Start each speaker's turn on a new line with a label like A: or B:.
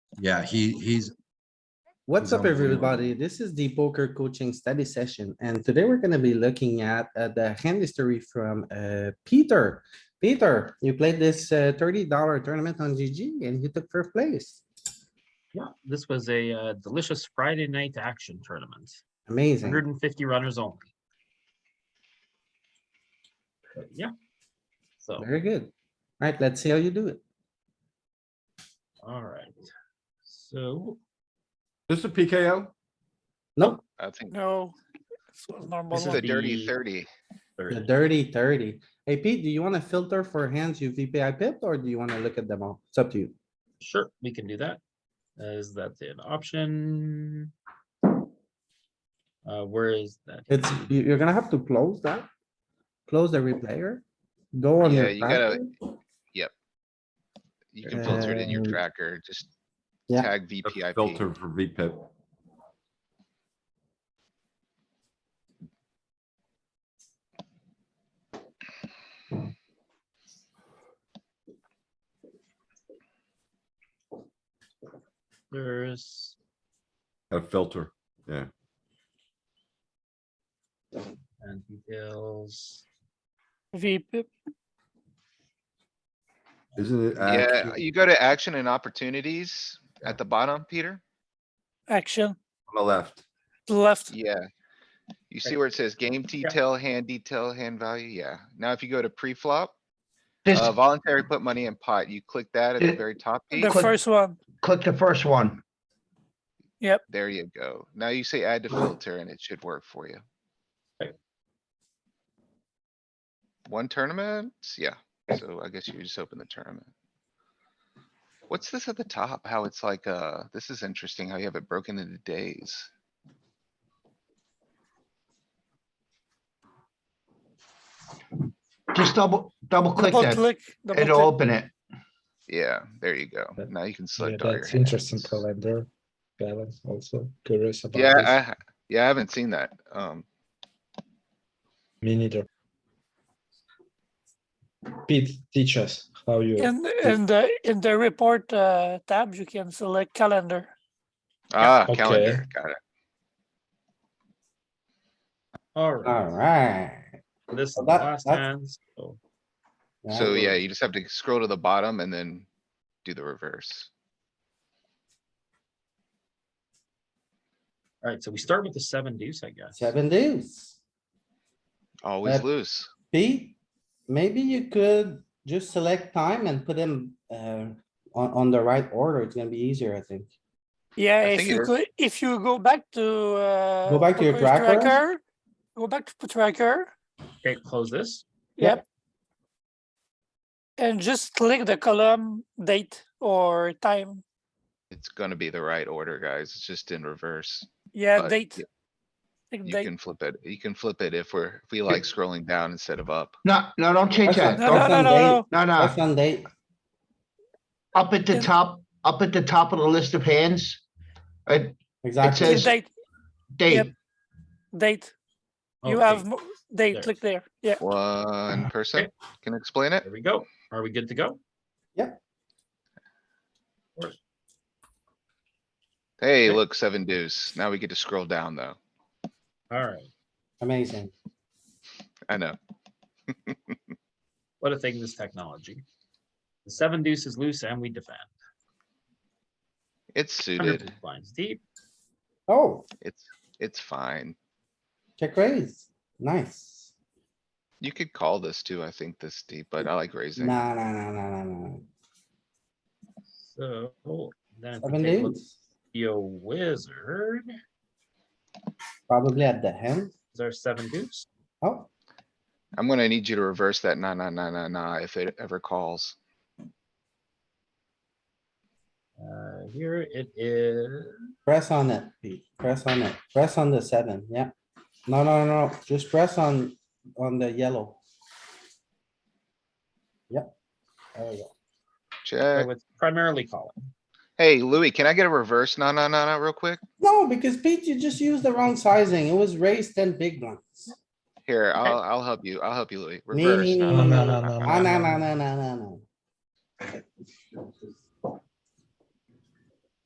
A: Yeah, he, he's,
B: What's up,
A: Unbelievable.
B: everybody? This is the poker coaching study session, and today we're gonna be looking at uh, the hand history from uh, Peter. Peter, you played this uh, thirty dollar tournament on GG and you took first place.
C: Yeah, this was a uh, delicious Friday night action tournament.
B: Amazing.
C: 150 runners only. But yeah. So,
B: Very good. Right, let's see how you do it.
C: all right. So,
D: This is a PKO?
B: Nope,
E: I think
F: No, this was normal.
E: this is
C: won't
E: a
F: one.
C: be-
E: dirty thirty.
B: the
C: thirty.
B: dirty thirty. Hey Pete, do you wanna filter for hands you VPI pipped or do you wanna look at them all? It's up to you.
C: sure, we can do that. Is that an option? Uh, where is that?
B: It's, you- you're gonna have to close that. Close the replayer. Go on
E: Yeah,
B: your.
E: you gotta-
B: platform.
E: You can filter it in your
B: Uh,
E: tracker, just
B: yeah.
E: tag
D: A
E: VPIP.
D: Filter for VPIP.
C: There's,
D: A filter.
C: and details.
F: VP,
D: Isn't it?
E: Yeah,
D: actually
E: you go to action and opportunities at the bottom, Peter?
F: action,
D: On the left.
F: left,
E: Yeah. You see
C: Right.
E: where it says game
C: Yeah.
E: detail, hand detail, hand value? Yeah. Now if you go to pre-flop,
G: This,
E: uh, voluntary put money in pot, you click that at the
G: Yeah.
E: very top. Pete.
F: the
G: click-
F: first one,
G: click the first one.
E: There you go. Now you say add to filter and it should work for you.
C: Right.
E: One tournament? Yeah, so I guess you just open the tournament. What's this at the top? How it's like, uh, this is interesting how you have it broken into days.
G: Just double, double click
F: double
G: that.
F: click, double
G: It'll
F: click.
G: open it.
E: Yeah, there you go.
H: That-
E: Now you can
H: Yeah,
E: select all your
H: that's interesting
E: hands.
H: calendar balance also curious about
E: Yeah,
H: this.
E: I, ha- yeah, I haven't seen that. Um,
H: me neither pete teach us how you
F: In, in the, in the report, uh, tab, you can select calendar.
E: ah,
H: okay.
E: calendar, got it.
C: All right,
B: Alright.
C: this is the
B: Well, that-
C: last
B: that's-
C: hand. So,
E: So yeah, you just have to scroll to the bottom and then do the reverse.
C: all right, so we start with the seven deuce, I guess.
B: Seven days.
E: Always
B: Uh,
E: loose.
B: Pete, maybe you could just select time and put them uh on on the right order. It's gonna be easier, I think.
F: Yeah,
E: I
F: if
E: think
F: you
E: it-
F: go, if you go back to, uh.
B: Go back to your
F: Poker's
B: tracker.
F: Go back to tracker,
C: Okay, close this.
B: Yep.
F: yep. And just click the column date or time,
E: It's gonna be the right order, guys. It's just in reverse.
F: yeah,
E: But
F: date.
E: y-
F: Click
E: You
F: date.
E: can flip it. You can flip it if we're, if we like scrolling down instead of up.
G: No, no, don't change
B: Okay.
G: that.
F: No, no,
B: Awesome
F: no, no,
G: Don't-
B: date.
F: no.
G: No, no,
B: That's on date.
G: up at the
F: Yeah.
G: top, up at the top of the list of hands. uh,
B: Exactly.
G: says-
F: Click Date,
G: date,
F: date, you
C: Okay,
F: have mo-
C: There.
F: date, click there, yeah.
E: One person can explain it.
C: There we go. Are we good to go?
E: Hey,
C: Okay.
E: look, seven deuce. Now we get to scroll down though.
C: All right.
B: Amazing.
E: I know.
C: What a thing this technology. The seven deuce is loose and we defend.
E: It's
C: 100
E: suited.
C: big blinds deep.
B: Oh,
E: It's, it's fine.
B: check raise. Nice.
E: You could call this too, I think, this deep, but I like raising.
B: Nah, nah, nah, nah, nah, nah.
C: So then if
B: Seven
C: we take a look
B: days,
C: at Yo wizard,
B: probably at the hand.
C: is our seven deuce.
B: Oh,
E: I'm gonna need you to reverse that nah, nah, nah, nah, nah, if it ever calls.
C: Uh, here it is.
B: press on it, Pete. Press on it. Press on the seven, yeah. No, no, no, no. just press on, on the yellow. Yep. There we go.
E: Check.
C: So it's primarily calling.
E: Hey, Louis, can I get a reverse nah, nah, nah, nah real quick?
B: No, because Pete, you just used the wrong sizing. It was raised ten big blinds.
E: Here, I'll, I'll help you. I'll help you, Louis.
B: Nee,
E: Reverse.
B: nee,
E: nah,
B: nee,
E: nah,
B: nee,
E: nah, nah,
H: nee,
E: nah,
B: Ah,
E: nah,
B: no,
E: nah.
B: no, no, no, no, no.